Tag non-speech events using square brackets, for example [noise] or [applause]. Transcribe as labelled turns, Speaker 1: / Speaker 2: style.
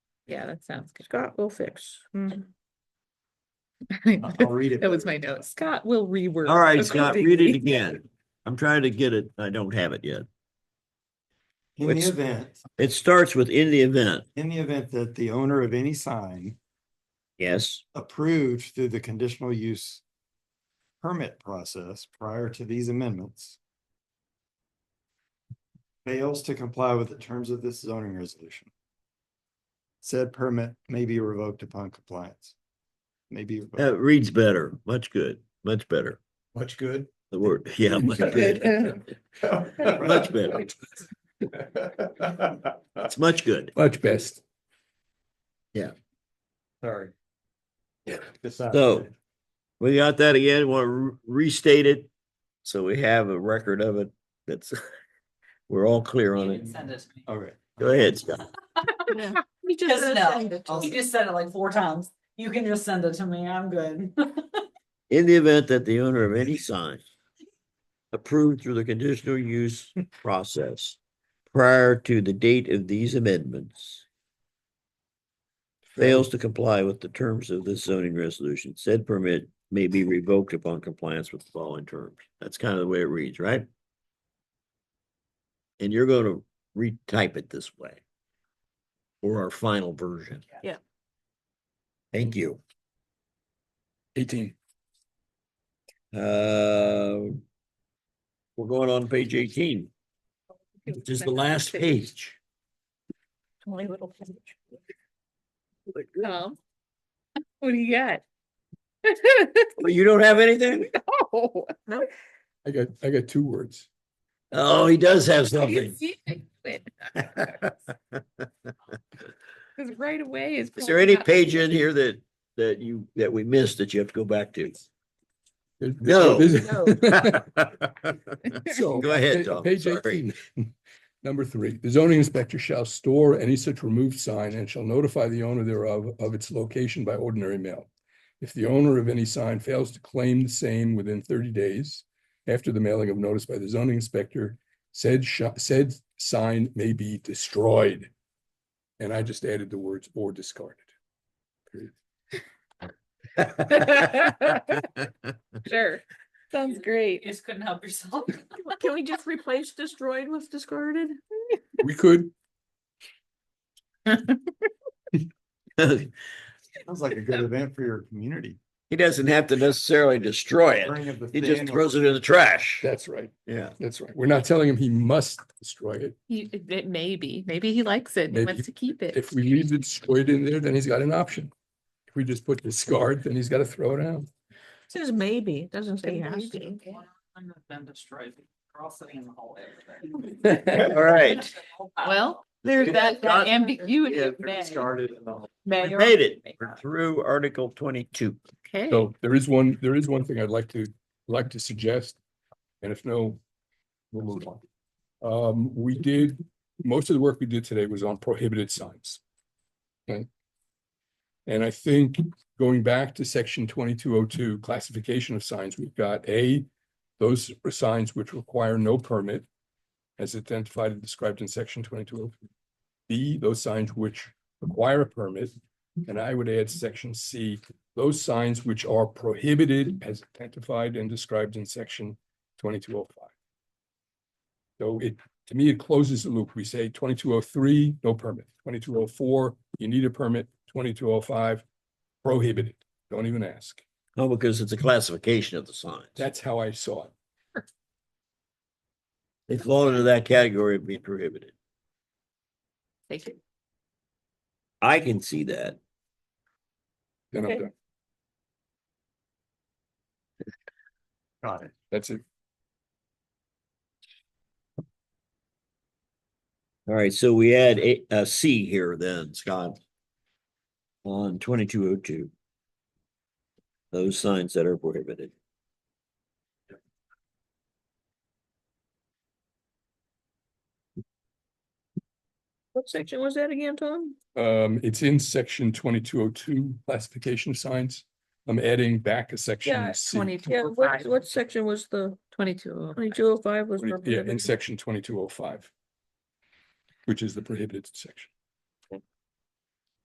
Speaker 1: Yeah, that sounds good. Mm-hmm.
Speaker 2: Scott will fix. Mhm.
Speaker 3: I'll- I'll read it.
Speaker 1: [laughs] That was my note. Scott will reword.
Speaker 4: All right, Scott, read it
Speaker 1: accordingly. [laughs]
Speaker 4: again. I'm trying to get it. I don't have it yet.
Speaker 3: In the
Speaker 4: Which-
Speaker 3: event,
Speaker 4: It starts with in the event.
Speaker 3: in the event that the owner of any sign
Speaker 4: Yes,
Speaker 3: approved through the conditional use permit process prior to these amendments fails to comply with the terms of this zoning resolution. Said permit may be revoked upon compliance. Maybe.
Speaker 4: that reads better. Much good, much better.
Speaker 3: Much good.
Speaker 4: The word, [laughs] yeah. much good.
Speaker 3: [laughs]
Speaker 1: Good.
Speaker 4: Much better. It's much good.
Speaker 5: Much best.
Speaker 3: Sorry. uh, Yeah.
Speaker 4: So- We got that again. Want to restate it? So we have a record of it. That's, [laughs] we're all clear on
Speaker 6: You
Speaker 4: it.
Speaker 6: didn't send it to me.
Speaker 3: Okay.
Speaker 4: Go ahead, Scott.
Speaker 2: You just
Speaker 6: Just
Speaker 2: said
Speaker 6: no.
Speaker 2: send it to
Speaker 6: You
Speaker 2: me.
Speaker 6: Oh, just said it like four times. You can just send it to me. I'm [laughs] good.
Speaker 4: In the event that the owner of any sign approved through the conditional use process prior to the date of these amendments fails to comply with the terms of this zoning resolution, said permit may be revoked upon compliance with the following terms. That's kind of the way it reads, right? And you're going to retype it this way or our final version.
Speaker 2: Yeah.
Speaker 4: Thank you.
Speaker 5: Eighteen.
Speaker 4: Uh, We're going on page eighteen, which is the last page.
Speaker 2: Only little page.
Speaker 1: Tom, Um, What do you got? [laughs]
Speaker 4: Oh, You don't have anything?
Speaker 1: Oh,
Speaker 5: I got, I got two words.
Speaker 4: Oh, he
Speaker 1: [laughs]
Speaker 4: does have something.
Speaker 1: see, I knew
Speaker 4: [laughs]
Speaker 1: it, Cause right away is.
Speaker 4: Is there any page in here that, that you, that we missed that you have to go back to? [laughs]
Speaker 5: There's-
Speaker 4: No.
Speaker 5: there's- [laughs] So,
Speaker 4: Go ahead,
Speaker 5: pa-
Speaker 4: Tom.
Speaker 5: Page
Speaker 4: Sorry.
Speaker 5: eighteen, [laughs] number three, the zoning inspector shall store any such removed sign and shall notify the owner thereof of its location by ordinary mail. If the owner of any sign fails to claim the same within thirty days after the mailing of notice by the zoning inspector, said sh- said sign may be destroyed. And I just added the words or discarded.
Speaker 1: [laughs] Sure, sounds
Speaker 6: You
Speaker 1: great.
Speaker 6: just couldn't help yourself.
Speaker 2: Can we just replace destroyed with discarded?
Speaker 5: We could,
Speaker 3: Sounds like a good event for your community.
Speaker 4: He doesn't have to necessarily destroy it.
Speaker 3: Burning of the
Speaker 4: He just
Speaker 3: thin or-
Speaker 4: throws it in the trash.
Speaker 5: that's right,
Speaker 4: Yeah.
Speaker 5: that's right. We're not telling him he must destroy it.
Speaker 1: He, it- it may be, maybe he likes it, and he
Speaker 5: Maybe.
Speaker 1: wants to keep it.
Speaker 5: If we leave the destroyed in there, then he's got an option. If we just put discard, then he's got to throw it out.
Speaker 2: Says maybe, it doesn't say has to.
Speaker 6: [laughs] I'm not been destroyed. We're all sitting in the
Speaker 4: [laughs]
Speaker 6: hallway.
Speaker 4: All right.
Speaker 1: Well, there's that that ambiguity. of may. May
Speaker 4: We
Speaker 1: or
Speaker 4: made it.
Speaker 1: may
Speaker 4: We're
Speaker 1: not.
Speaker 4: through Article twenty-two.
Speaker 1: Okay,
Speaker 5: So there is one, there is one thing I'd like to, like to suggest, and if no, we'll move on. Um, we did, most of the work we did today was on prohibited signs. Okay. And I think going back to section twenty-two oh two classification of signs, we've got A, those are signs which require no permit as identified and described in section twenty-two oh two. B, those signs which require a permit, and I would add section C, those signs which are prohibited as identified and described in section twenty-two oh five. So it, to me, it closes the loop. We say twenty-two oh three, no permit, twenty-two oh four, you need a permit, twenty-two oh five, prohibited, don't even ask.
Speaker 4: Oh, because it's a classification of the signs.
Speaker 5: That's how I saw it.
Speaker 4: They fall into that category of being prohibited.
Speaker 1: thank you.
Speaker 4: I can see that.
Speaker 5: Then I'm
Speaker 1: Okay.
Speaker 5: done.
Speaker 3: Got it.
Speaker 5: That's it.
Speaker 4: All right, so we add a, a C here then, Scott. On twenty-two oh two. Those signs that are prohibited.
Speaker 2: What section was that again, Tom?
Speaker 5: Um, it's in section twenty-two oh two, classification of signs. I'm adding back a
Speaker 2: Yeah,
Speaker 5: section C.
Speaker 2: Yeah, what, what section was the,
Speaker 1: oh Twenty-two.
Speaker 2: twenty-two oh five was.
Speaker 5: Yeah, in
Speaker 2: prohibited?
Speaker 5: section twenty-two oh five. Which is the prohibited section.